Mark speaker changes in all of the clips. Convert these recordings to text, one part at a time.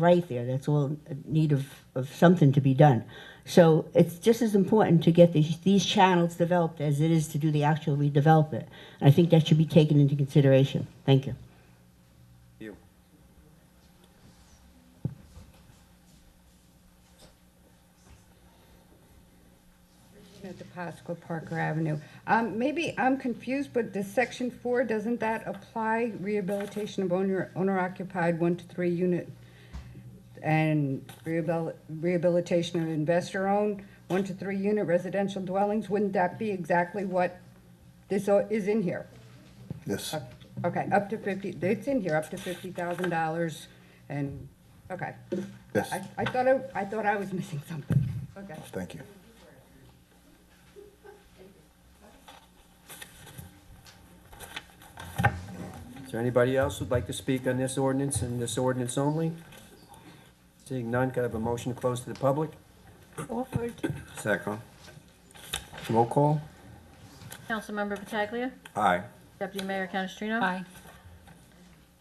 Speaker 1: right there. That's all in need of, of something to be done. So it's just as important to get these, these channels developed as it is to do the actual redevelopment. And I think that should be taken into consideration. Thank you.
Speaker 2: You.
Speaker 3: At the Pasqua Parker Avenue. Um, maybe I'm confused, but the section four, doesn't that apply rehabilitation of owner, owner occupied one to three unit? And rehabil- rehabilitation of investor owned, one to three unit residential dwellings, wouldn't that be exactly what this o- is in here?
Speaker 4: Yes.
Speaker 3: Okay, up to fifty, it's in here, up to fifty thousand dollars and, okay.
Speaker 4: Yes.
Speaker 3: I, I thought I, I thought I was missing something, okay.
Speaker 4: Thank you.
Speaker 2: Is there anybody else who'd like to speak on this ordinance and this ordinance only? Seeing none, could I have a motion to close to the public?
Speaker 5: Offered.
Speaker 6: Second.
Speaker 4: Roll call?
Speaker 5: Councilmember Pataglia.
Speaker 6: Aye.
Speaker 5: Deputy Mayor Canestrino.
Speaker 7: Aye.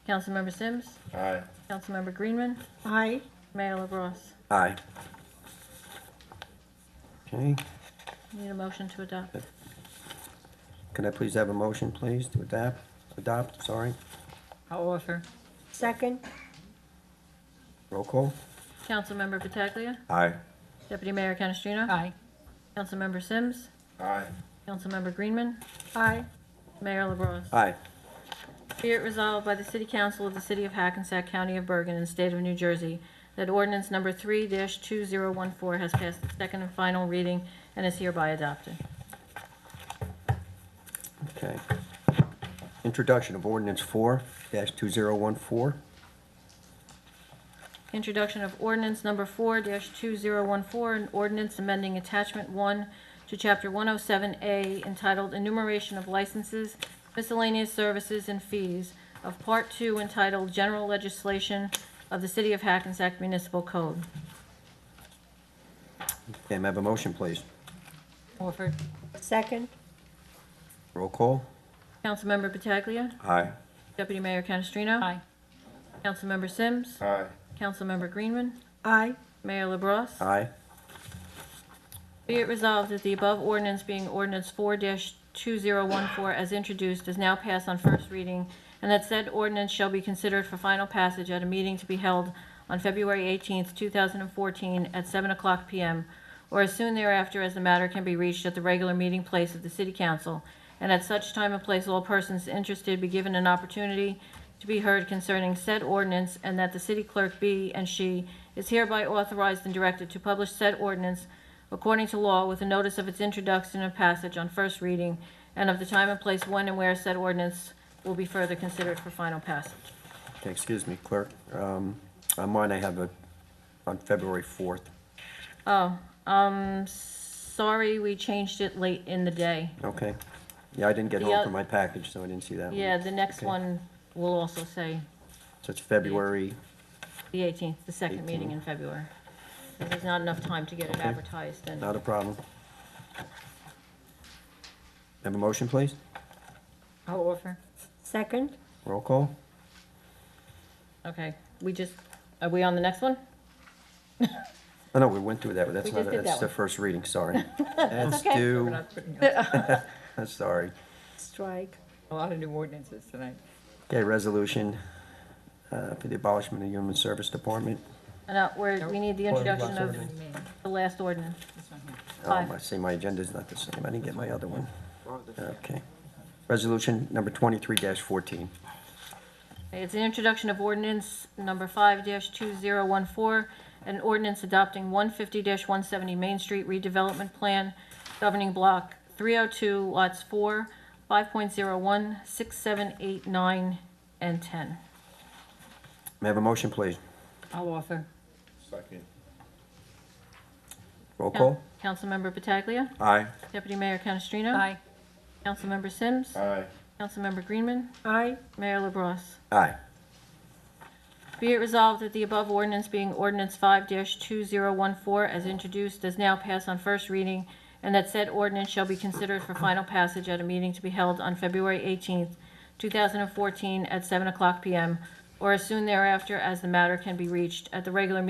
Speaker 5: Councilmember Sims.
Speaker 6: Aye.
Speaker 5: Councilmember Greenman.
Speaker 7: Aye.
Speaker 5: Mayor LaBrus.
Speaker 6: Aye.
Speaker 2: Okay,
Speaker 5: Need a motion to adopt.
Speaker 2: can I please have a motion, please, to adapt, adopt, sorry,
Speaker 7: I'll offer.
Speaker 5: Second.
Speaker 2: roll call?
Speaker 5: Councilmember Pataglia.
Speaker 6: Aye.
Speaker 5: Deputy Mayor Canestrino.
Speaker 7: Aye.
Speaker 5: Councilmember Sims.
Speaker 6: Aye.
Speaker 5: Councilmember Greenman.
Speaker 7: Aye.
Speaker 5: Mayor LaBrus.
Speaker 2: Aye.
Speaker 5: Be it resolved by the City Council of the City of Hackensack County of Bergen and State of New Jersey that ordinance number 3-2014 has passed its second and final reading and is hereby adopted.
Speaker 2: Okay. Introduction of ordinance four dash two zero one four.
Speaker 5: Introduction of ordinance number four two zero one four, an ordinance amending attachment one to chapter one oh seven A entitled enumeration of licenses, miscellaneous services, and fees of part two entitled general legislation of the city of Hackensack Municipal Code.
Speaker 2: Okay, may I have a motion, please?
Speaker 7: Offered.
Speaker 5: Second.
Speaker 2: Roll call?
Speaker 5: Councilmember Pataglia.
Speaker 6: Aye.
Speaker 5: Deputy Mayor Canestrino.
Speaker 7: Aye.
Speaker 5: Councilmember Sims.
Speaker 6: Aye.
Speaker 5: Councilmember Greenman.
Speaker 7: Aye.
Speaker 5: Mayor LaBrus.
Speaker 2: Aye.
Speaker 5: Be it resolved that the above ordinance being ordinance four two zero one four as introduced is now passed on first reading, and that said ordinance shall be considered for final passage at a meeting to be held on February eighteenth, two thousand and fourteen, at seven o'clock PM, or as soon thereafter as the matter can be reached at the regular meeting place of the city council, and at such time and place all persons interested be given an opportunity to be heard concerning said ordinance, and that the city clerk be and she is hereby authorized and directed to publish said ordinance according to law with a notice of its introduction and passage on first reading, and of the time and place when and where said ordinance will be further considered for final passage.
Speaker 2: Okay, excuse me, clerk. Um, on mine, I have a, on February fourth.
Speaker 5: Oh, um, sorry, we changed it late in the day.
Speaker 2: Okay. Yeah, I didn't get
Speaker 5: The
Speaker 2: home
Speaker 5: oth-
Speaker 2: from my package, so I didn't see that one.
Speaker 5: Yeah, the next
Speaker 2: Okay.
Speaker 5: one will also say
Speaker 2: So it's February,
Speaker 5: the 18th, the second meeting in February. 'cause There's not enough time to get it
Speaker 2: Okay.
Speaker 5: advertised and
Speaker 2: not a problem. Have a motion, please?
Speaker 7: I'll offer.
Speaker 5: Second?
Speaker 2: Roll call?
Speaker 5: Okay, we just, are we on the next one?
Speaker 2: Oh, no, we went through that, but that's
Speaker 5: We
Speaker 2: not,
Speaker 5: just did
Speaker 2: that's
Speaker 5: that
Speaker 2: the
Speaker 5: one.
Speaker 2: first reading, sorry. That's
Speaker 5: okay.
Speaker 2: due, I'm sorry.
Speaker 7: Strike.
Speaker 8: A lot of new ordinances tonight.
Speaker 2: Okay, resolution uh, for the abolishment of Human Service Department.
Speaker 5: Uh, No, we're, we need the
Speaker 2: Nope.
Speaker 5: introduction of
Speaker 2: Ordinance.
Speaker 5: the last ordinance.
Speaker 2: Oh,
Speaker 5: Aye.
Speaker 2: I see my agenda's not the same, I didn't get my other one. Okay. Resolution number twenty-three fourteen.
Speaker 5: It's an introduction of ordinance number five two zero one four, an ordinance adopting one fifty one seventy Main Street redevelopment plan governing block three oh two lots four, five point zero one, six, seven, eight, nine, and ten.
Speaker 2: May I have a motion, please?
Speaker 7: I'll offer.
Speaker 6: Second.
Speaker 2: Roll call?
Speaker 5: Councilmember Pataglia.
Speaker 6: Aye.
Speaker 5: Deputy Mayor Canestrino.
Speaker 7: Aye.
Speaker 5: Councilmember Sims.
Speaker 6: Aye.
Speaker 5: Councilmember Greenman.
Speaker 7: Aye.
Speaker 5: Mayor LaBrus.
Speaker 2: Aye.
Speaker 5: Be it resolved that the above ordinance being ordinance five two zero one four as introduced does now pass on first reading, and that said ordinance shall be considered for final passage at a meeting to be held on February eighteenth, two thousand and fourteen, at seven o'clock PM, or as soon thereafter as the matter can be reached at the regular meeting